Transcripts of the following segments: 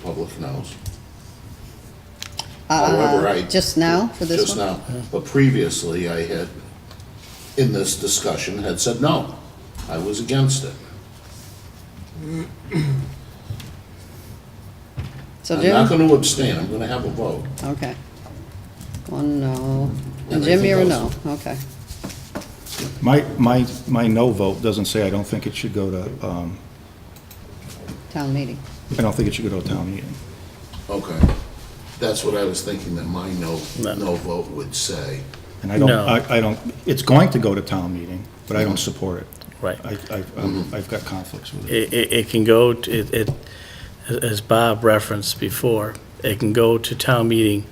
Cliff knows. However, I- Uh, Just now for this Just one? now, but previously I had, in this discussion, had said no, I was against it. So I'm not Jim, gonna abstain, I'm gonna have a vote. okay. One no. And And I Jim, think you're a no, those- okay. My, my, my no vote doesn't say I don't think it should go to, um, Town meeting. I don't think it should go to a town meeting. Okay, that's what I was thinking that my no, No. no vote would say. And I don't, No. I, I don't, it's going to go to town meeting, but I don't support it. Right. I, I, I'm- I've got conflicts with it. It, it- it can go, to- it, it, as Bob referenced before, it can go to town meeting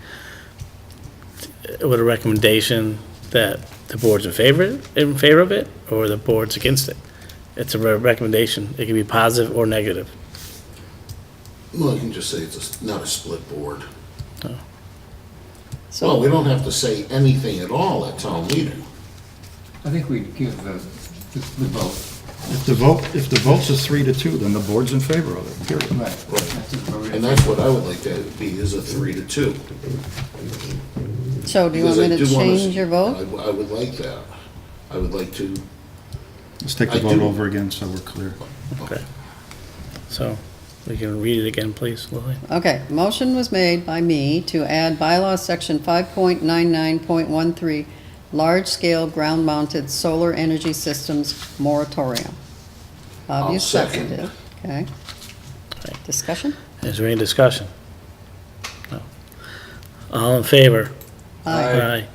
with a recommendation that the board's in favor, in favor of it, or the board's against it. It's a re- recommendation. It can be positive or negative. Well, I can just say it's a s- not a split board. Well, we So, don't have to say anything at all at town meeting. I think we'd give the, the the vote. If the vote, if the vote's a three to two, then the board's in favor of it, period. Right. That's just where we- And that's what I would like to be, is a three to two. so do you want Because I me to do wanna s- uh, change your vote? I, I would like that. I would like to, Let's take the I vote do- over again so we're clear. Okay. So, we can read it again, please, Lily. Okay, motion was made by me to add bylaw section five point nine nine point one three, large-scale ground-mounted solar energy systems moratorium. Bob, I'll you second. seconded, it. okay. Right. Discussion? Is there any discussion? No. All in favor? Aye. Uh, Aye.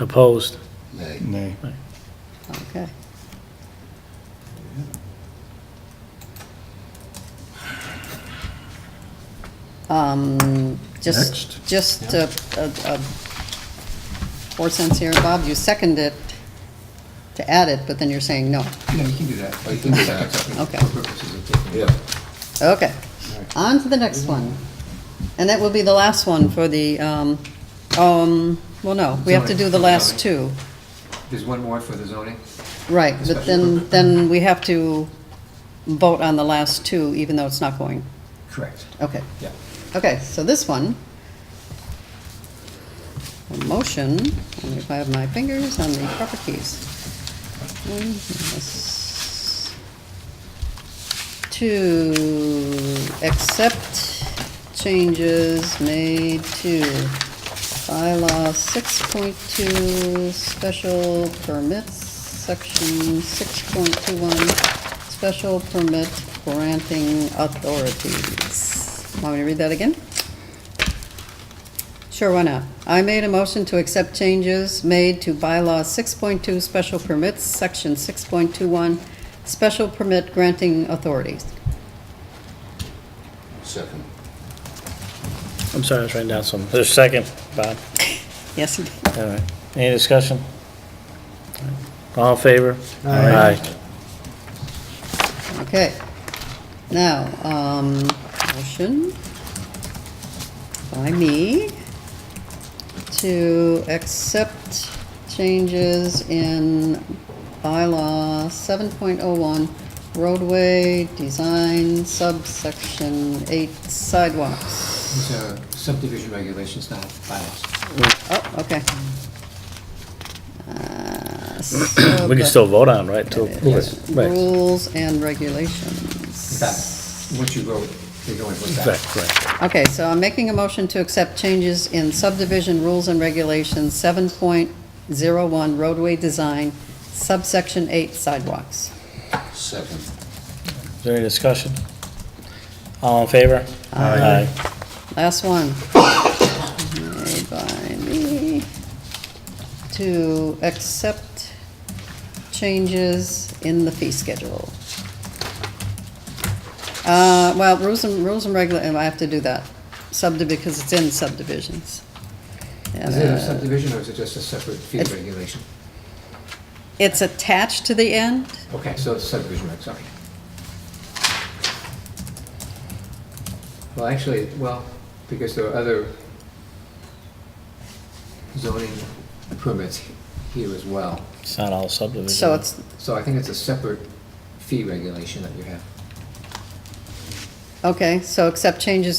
Opposed? nay, Nay. Okay. Um, just, Next. just, uh, uh, uh, four cents here, Bob, you second it to add it, but then you're saying no. Yeah, you can do that. I can do that. Okay, For purposes of taking- yeah. okay. On to the next one. And that will be the last one for the, um, um, well, no, we have to do the last two. There's one more for the zoning? Right, but then, then we have to vote on the last two, even though it's not going. Correct. Okay, Yeah. okay, so this one. A motion, and if I have my fingers on the proper keys. One, yes. To accept changes made to bylaw six point two, special permits, section six point two one, special permit granting authorities. Want me to read that again? Sure, why not? I made a motion to accept changes made to bylaw 6.2 special permits, section 6.21, special permit granting authorities. Second. I'm sorry, I was writing down some. There's a second, Bob. Yes, you did. All right. Any discussion? All in favor? Aye. Okay. Now, um, motion by me to accept changes in bylaw seven point oh one, roadway design subsection eight sidewalks. These are subdivision regulations, not bylaws. Oh, okay. Uh, so We can the still vote on, right? till- Yes. Right, Rules and In regulations. fact, once you vote, they go into effect. Right, right. Okay, so I'm making a motion to accept changes in subdivision rules and regulations, 7.01 roadway design, subsection 8 sidewalks. Second. Is there any discussion? All in favor? Aye. Last one. Made by me. To accept changes in the fee schedule. Uh, well, rules and, rules and regula, and I have to do that, subdiv, because it's in subdivisions. And, Is it a uh, subdivision or is it just a separate field It's- regulation? It's attached to the end? Okay, so it's subdivision, reg, sorry. Well, actually, well, because there are other zoning permits here as well. It's not all subdivision. So it's, So I think it's a separate fee regulation that you have. okay, so accept changes